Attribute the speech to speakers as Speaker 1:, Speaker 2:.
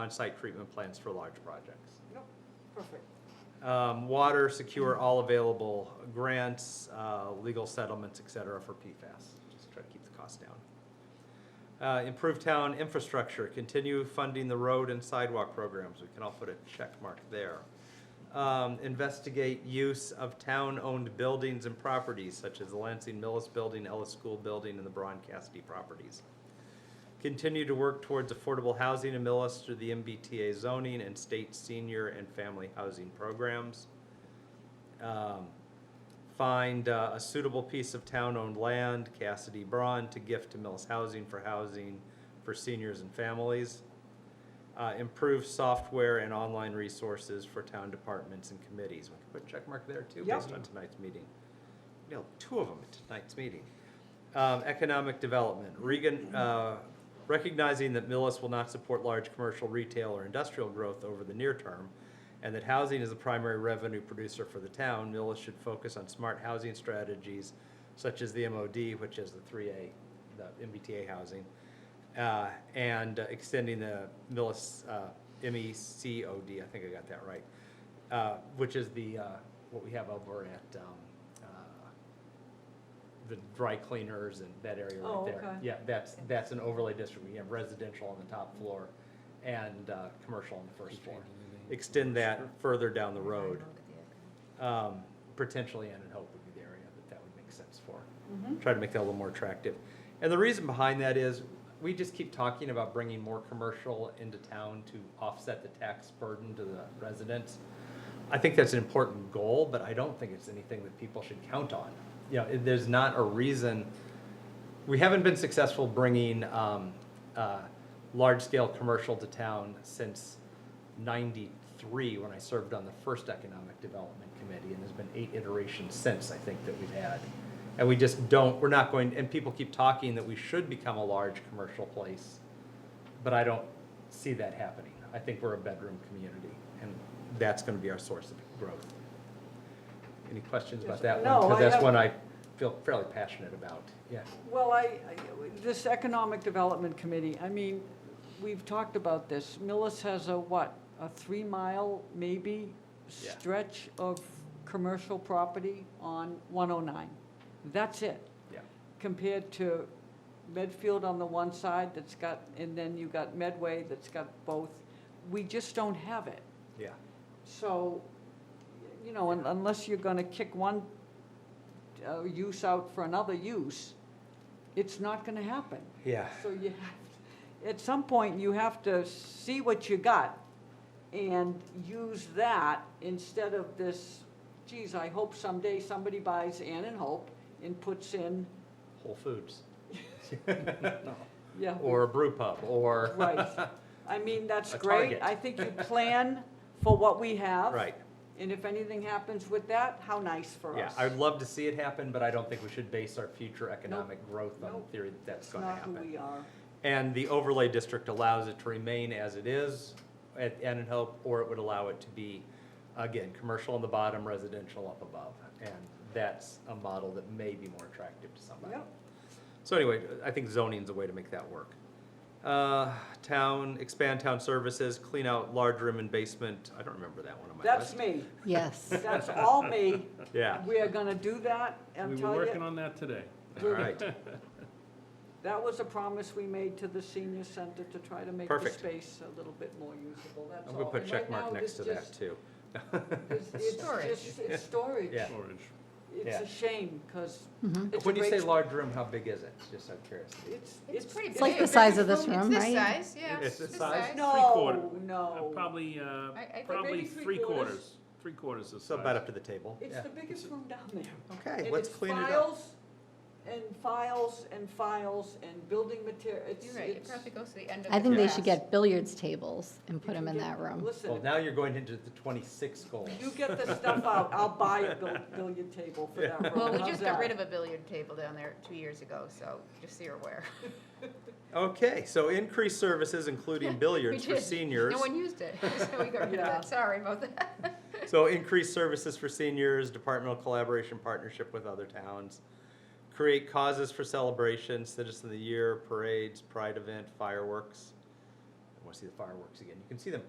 Speaker 1: on-site treatment plants for large projects.
Speaker 2: Nope, perfect.
Speaker 1: Um, Water, secure all available grants, uh, legal settlements, et cetera, for PFAS. Just try to keep the cost down. Uh, Improve town infrastructure, continue funding the road and sidewalk programs. We can all put a check mark there. Um, Investigate use of town-owned buildings and properties such as the Lansing Millis Building, Ellis School Building, and the Braun Cassidy properties. Continue to work towards affordable housing in Millis through the MBTA zoning and state senior and family housing programs. Um, Find uh, a suitable piece of town-owned land, Cassidy Braun, to gift to Millis Housing for housing for seniors and families. Uh, Improve software and online resources for town departments and committees. We can put a check mark there too,
Speaker 2: Yep.
Speaker 1: based on tonight's meeting. No, two of them at tonight's meeting. Um, economic development, Regan, uh, recognizing that Millis will not support large commercial, retail, or industrial growth over the near term, and that housing is the primary revenue producer for the town, Millis should focus on smart housing strategies such as the MOD, which is the three A, the MBTA housing, uh, and uh, extending the Millis, uh, MECOD, I think I got that right, uh, which is the, uh, what we have over at, um, uh, the dry cleaners and that area
Speaker 2: Oh,
Speaker 1: right there.
Speaker 2: okay.
Speaker 1: Yeah, that's, that's an overlay district. We have residential on the top floor and uh, commercial on the first floor. Extend that further down the road. Um, Potentially Ann and Hope would be the area that that would make sense for.
Speaker 2: Mhm.
Speaker 1: Try to make that a little more attractive. And the reason behind that is, we just keep talking about bringing more commercial into town to offset the tax burden to the residents. I think that's an important goal, but I don't think it's anything that people should count on. You know, it- there's not a reason, we haven't been successful bringing um, uh, large-scale commercial to town since '93, when I served on the first Economic Development Committee, and there's been eight iterations since, I think, that we've had. And we just don't, we're not going, and people keep talking that we should become a large commercial place but I don't see that happening. I think we're a bedroom community, and that's gonna be our source of growth. Any questions about that one?
Speaker 2: No,
Speaker 1: Because
Speaker 2: I
Speaker 1: that's
Speaker 2: have-
Speaker 1: one I feel fairly passionate about, yeah.
Speaker 2: Well, I, I- this Economic Development Committee, I mean, we've talked about this. Millis has a what, a three-mile maybe
Speaker 1: Yeah.
Speaker 2: stretch of commercial property on 109. That's it,
Speaker 1: Yeah.
Speaker 2: compared to Medfield on the one side that's got, and then you got Medway that's got both. We just don't have it.
Speaker 1: Yeah,
Speaker 2: So, you know, un- unless you're gonna kick one uh, use out for another use, it's not gonna happen.
Speaker 1: yeah,
Speaker 2: So you have, at some point, you have to see what you got and use that instead of this, geez, I hope someday somebody buys Ann and Hope and puts in,
Speaker 1: Whole Foods,
Speaker 2: yeah.
Speaker 1: or a brew pub, or,
Speaker 2: Right. I mean, that's
Speaker 1: A
Speaker 2: great.
Speaker 1: target.
Speaker 2: I think you plan for what we have.
Speaker 1: right,
Speaker 2: And if anything happens with that, how nice for
Speaker 1: yeah.
Speaker 2: us.
Speaker 1: I'd love to see it happen, but I don't think we should base our future economic growth on the
Speaker 2: Nope.
Speaker 1: theory that that's
Speaker 2: It's
Speaker 1: gonna
Speaker 2: not
Speaker 1: happen.
Speaker 2: who we are.
Speaker 1: And the overlay district allows it to remain as it is at Ann and Hope, or it would allow it to be, again, commercial on the bottom, residential up above. And that's a model that may be more attractive to somebody.
Speaker 2: Yep.
Speaker 1: So anyway, I think zoning's a way to make that work. Uh, Town, expand town services, clean out large room and basement. I don't remember that one on my
Speaker 2: That's
Speaker 1: list.
Speaker 2: me.
Speaker 3: Yes.
Speaker 2: That's all me.
Speaker 1: Yeah,
Speaker 2: We are gonna do that. I'm
Speaker 4: We were
Speaker 2: telling
Speaker 4: working
Speaker 2: you,
Speaker 4: on that today.
Speaker 1: all right.
Speaker 2: that was a promise we made to the senior center to try to make the
Speaker 1: Perfect.
Speaker 2: space a little bit more usable. That's
Speaker 1: I'm
Speaker 2: all.
Speaker 1: gonna put a
Speaker 2: And
Speaker 1: check
Speaker 2: right
Speaker 1: mark
Speaker 2: now,
Speaker 1: next
Speaker 2: it's
Speaker 1: to that
Speaker 2: just-
Speaker 1: too.
Speaker 2: It's it's
Speaker 3: Storage.
Speaker 2: just, it's storage.
Speaker 1: Yeah.
Speaker 4: Storage.
Speaker 2: It's
Speaker 1: Yeah.
Speaker 2: a shame, because
Speaker 3: Mm-hmm.
Speaker 2: it's a
Speaker 1: When you say
Speaker 2: great,
Speaker 1: large room, how big is it? Just out of curiosity.
Speaker 2: it's,
Speaker 5: It's pretty big.
Speaker 3: It's like the size of this
Speaker 5: It's
Speaker 3: room, right?
Speaker 5: this size, yeah.
Speaker 1: It's this size?
Speaker 4: Three-quarter.
Speaker 2: No,
Speaker 4: Uh,
Speaker 2: no.
Speaker 4: Probably, uh,
Speaker 5: I- I think
Speaker 4: probably
Speaker 2: maybe
Speaker 4: three
Speaker 2: three-quarters.
Speaker 4: quarters, three quarters of size.
Speaker 1: So about up to the table.
Speaker 2: It's
Speaker 1: Yeah.
Speaker 2: the biggest room down there.
Speaker 1: Okay,
Speaker 2: And
Speaker 1: let's
Speaker 2: it's
Speaker 1: clean it up.
Speaker 2: files And files and files and building material, it's,
Speaker 5: You're right, it
Speaker 2: it's.
Speaker 5: probably goes to the end of the.
Speaker 3: I think they should
Speaker 5: glass.
Speaker 3: get billiards tables and
Speaker 2: you
Speaker 3: put them
Speaker 2: can
Speaker 3: in
Speaker 2: get-
Speaker 3: that room.
Speaker 1: Well,
Speaker 2: Listen,
Speaker 1: now you're going into the twenty-six goals.
Speaker 2: you get the stuff out, I'll buy a bill- billiard table for that room.
Speaker 5: Well, we
Speaker 2: How's
Speaker 5: just got
Speaker 2: that?
Speaker 5: rid of a billiard table down there two years ago, so just so you're aware.
Speaker 1: Okay, so increased services, including billiards
Speaker 5: We
Speaker 1: for
Speaker 5: did.
Speaker 1: seniors.
Speaker 5: No one used it, so we got rid of
Speaker 2: Yeah.
Speaker 5: that, sorry about that.
Speaker 1: So increased services for seniors, departmental collaboration, partnership with other towns. Create causes for celebration, citizen of the year, parades, pride event, fireworks. want to see the fireworks again. You can see them